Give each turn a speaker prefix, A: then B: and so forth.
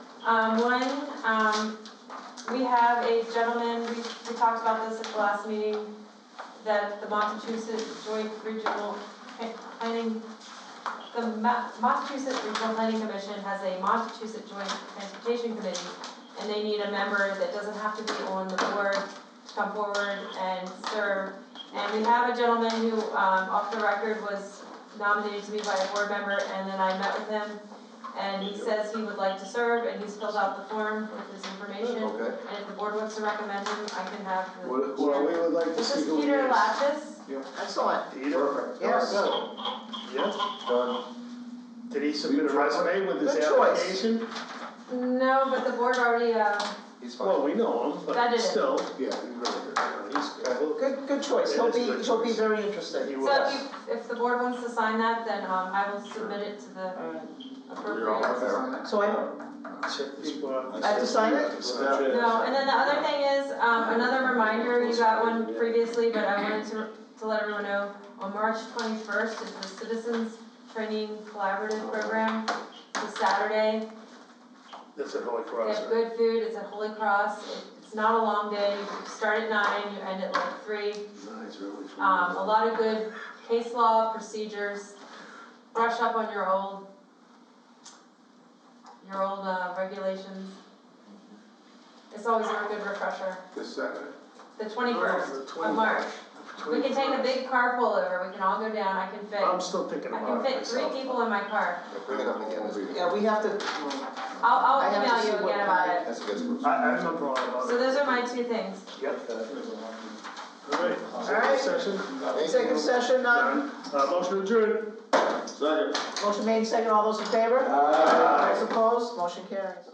A: Um, one, um, we have a gentleman, we, we talked about this at the last meeting, that the Massachusetts Joint Regional Plan- Planning, the Ma- Massachusetts Regional Planning Commission has a Massachusetts Joint Transportation Committee, and they need a member that doesn't have to be on the board to come forward and serve. And we have a gentleman who, um, off the record was nominated to be by a board member, and then I met with him, and he says he would like to serve, and he's filled out the form with his information.
B: Okay,
A: And if the board wants to recommend him, I can have the
B: well, well, we would like to
A: This
B: see
A: is
B: who it is.
A: Peter Lapis.
C: Excellent.
B: Peter?
C: Yeah, good.
B: Yes, done.
D: Did he submit a resume with his
C: Good choice.
D: application?
A: No, but the board already, uh,
B: He's fine.
D: Well, we know him,
A: That
D: but
A: is it.
D: still,
B: Yeah, he's really
D: uh, he's good.
C: Good, good choice. He'll be,
D: It is a
C: he'll
D: good
C: be
D: choice.
C: very interested.
D: He
A: so if
D: was.
A: you, if the board wants to sign that, then, um, I will submit it to the
C: Alright.
A: appropriate.
C: So I,
D: Check this one.
C: I have to sign it?
D: Sign
A: No, and then the other thing is, um, another reminder, you got one previously, but I wanted to, to let everyone know, on March twenty-first is the Citizens Training Collaborative Program, it's a Saturday.
D: That's at Holy
A: They
D: Cross,
A: have
D: right?
A: good food, it's at Holy Cross, it's not a long day, you start at nine, you end at like three.
B: Nice, really. fun.
A: Um, a lot of good case law procedures, brush up on your old, your old, uh, regulations. It's always a good refresher,
B: This Saturday.
A: the twenty-first of March, we can take a big carpool over, we can all go down, I can fit,
D: I'm still thinking
A: I can
D: about it
A: fit three
D: myself.
A: people in my car.
B: Bring it up again.
C: yeah, we have to,
A: I'll,
C: I
A: I'll
C: have to see
A: email you
C: what
A: again about
C: time
A: it,
B: That's a good solution.
D: I, I have no problem about
A: so
D: it.
A: those are my two things.
D: Yep. All right.
C: right.
D: Executive session.
C: executive session, uh,
D: Done. Uh, motion adjourned.
C: motion made, second, all those in favor? Those opposed, motion carries.